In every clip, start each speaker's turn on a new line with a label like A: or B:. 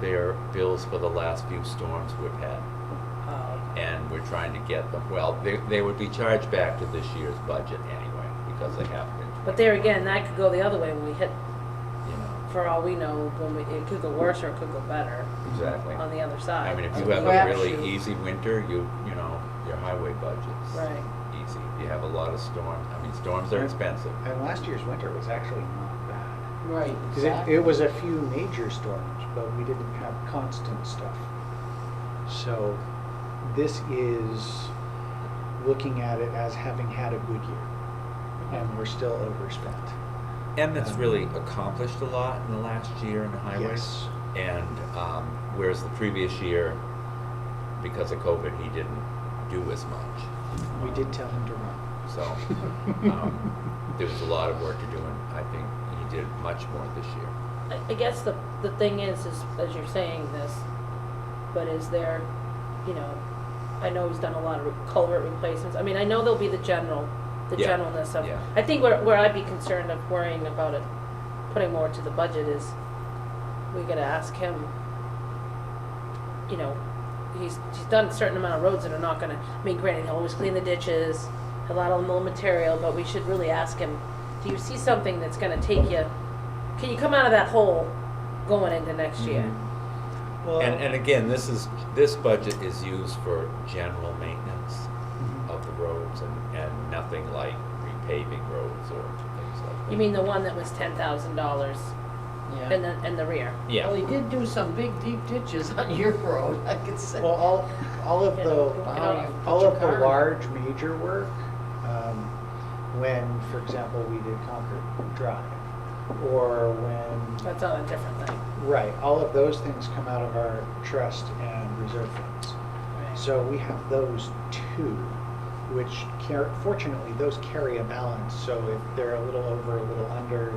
A: their bills for the last few storms we've had.
B: Oh,
A: And we're trying to get them, well, they, they would be charged back to this year's budget anyway, because they have been,
B: but there again, that could go the other way when we hit,
A: you know,
B: for all we know, when we, it could go worse or it could go better
A: exactly.
B: on the other side.
A: I mean, if
B: It's
A: you
B: a
A: have a really
B: crapshoot.
A: easy winter, you, you know, your highway budget's
B: Right.
A: easy. You have a lot of storms, I mean, storms are
C: Yeah.
A: expensive.
C: And last year's winter was actually not bad.
D: Right.
C: 'Cause it, it was a few major storms, but we didn't have constant stuff. So this is looking at it as having had a good year, and we're still overspent.
A: Emmett's
C: Um,
A: really accomplished a lot in the last year in the highways.
C: Yes.
A: And, um, whereas the previous year, because of COVID, he didn't do as much.
C: We did tell him to run.
A: So, um, there was a lot of work to do, and I think he did much more this year.
B: I, I guess the, the thing is, is as you're saying this, but is there, you know, I know he's done a lot of culvert replacements. I mean, I know there'll be the general, the
A: Yeah,
B: generalness of.
A: yeah.
B: I think where, where I'd be concerned of worrying about it, putting more to the budget is, we gotta ask him, you know, he's, he's done a certain amount of roads that are not gonna, I mean, granted, he'll always clean the ditches, a lot of mill material, but we should really ask him, do you see something that's gonna take you, can you come out of that hole going into next year?
D: Mm-hmm.
C: Well,
A: And, and again, this is, this budget is used for general maintenance
C: mhm.
A: of the roads and, and nothing like repaving roads or things like that.
B: You mean the one that was ten thousand dollars in
D: Yeah.
B: the, in the rear?
A: Yeah.
D: Well, he did do some big deep ditches on your road, I could say.
C: Well, all, all of
B: Yeah,
C: the,
D: Wow, you put
C: all
D: your
C: of
D: car
C: the
D: in.
C: large major work, um, when, for example, we did Concord Drive, or when
B: That's all a different thing.
C: Right, all of those things come out of our trust and reserve funds. So we have those two, which car fortunately, those carry a balance, so if they're a little over, a little under,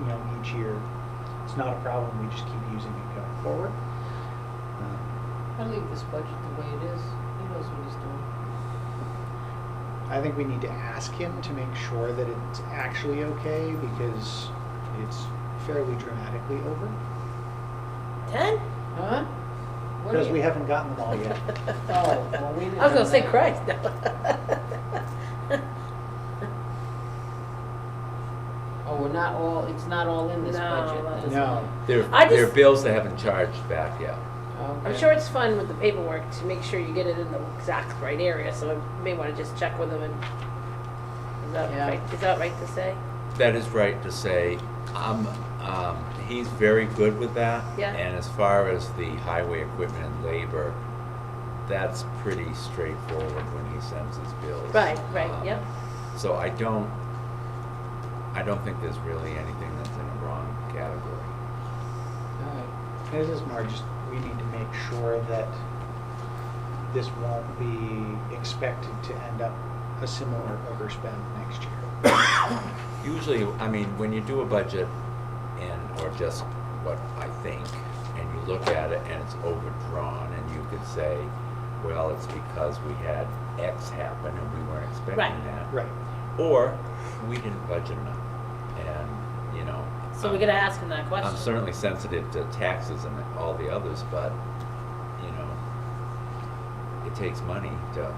C: you know, each year, it's not a problem, we just keep using it going forward. Um,
D: I leave this budget the way it is. He knows what he's doing.
C: I think we need to ask him to make sure that it's actually okay, because it's fairly dramatically over,
B: Ten?
D: Huh? What do
C: because
D: you-
C: we haven't gotten them all yet.
D: Oh, well, we didn't.
B: I was gonna say
D: know.
B: Christ. no.
D: Oh, we're not all, it's not all in this
B: No,
D: budget.
B: that
D: then.
B: is-
C: No.
A: There,
B: I
A: there are
B: just-
A: bills they haven't charged back yet.
D: Okay.
B: I'm sure it's fun with the paperwork to make sure you get it in the exact right area, so I may wanna just check with them and, is that
D: Yeah.
B: right, is that right to say?
A: That is right to say, um, um, he's very good with that.
B: Yeah.
A: And as far as the highway equipment and labor, that's pretty straightforward when he sends his bills.
B: Right, right,
A: Um,
B: yep.
A: So I don't, I don't think there's really anything that's in a wrong category.
D: All right.
C: This is more just, we need to make sure that this won't be expected to end up a similar overspend next year.
A: Usually, I mean, when you do a budget and, or just what I think, and you look at it and it's overdrawn, and you could say, well, it's because we had X happen and we weren't expecting
B: Right.
A: that.
C: Right.
A: Or, we didn't budget enough, and, you know.
B: So
A: I'm-
B: we gotta ask them that question.
A: I'm Uh, certainly sensitive to taxes and all the others, but, you know, it takes money to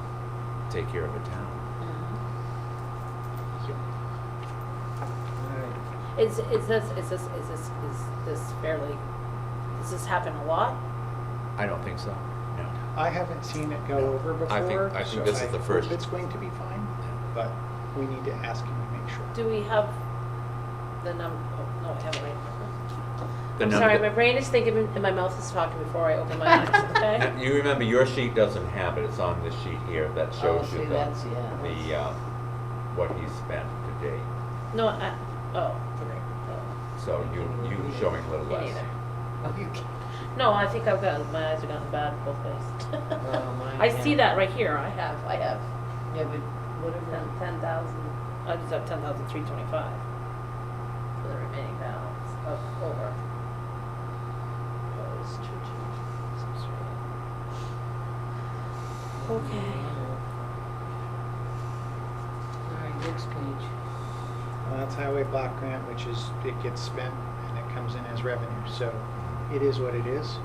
A: take care of a town.
B: Is, is this, is this, is this, is this fairly, does this happen a lot?
A: I don't think so, no.
C: I haven't seen it go over before.
A: I think- I think
C: so
A: this is the
C: hope
A: first-
C: It's going to be fine, but we need to ask him to make sure.
B: Do we have the num, oh, no, I have it right.
A: The
B: I'm
A: number
B: sorry,
A: that-
B: my brain is thinking and my mouth is talking before I open my eyes, okay?
A: And You remember, your sheet doesn't have it, it's on this sheet here that
D: Oh,
A: shows
D: see,
A: you the,
D: that's, yeah.
A: the, um, what he spent to date.
B: No, I, oh, okay. Oh,
A: So you, you showing a little
B: Me
A: less.
B: neither.
A: uh,
D: Oh, you can't.
B: No, I think I've gotten, my eyes have gotten bad both ways.
D: Oh, mine,
B: I see
D: yeah.
B: that right here, I have, I have
D: Yeah, but whatever.
B: ten, ten thousand, I just have ten thousand three twenty-five for the remaining balance of over. Oh, it's two, two, six, three. Okay.
D: All right, next page.
C: Well, Uh, that's highway block grant, which is, it gets spent and it comes in as revenue, so it is what it is.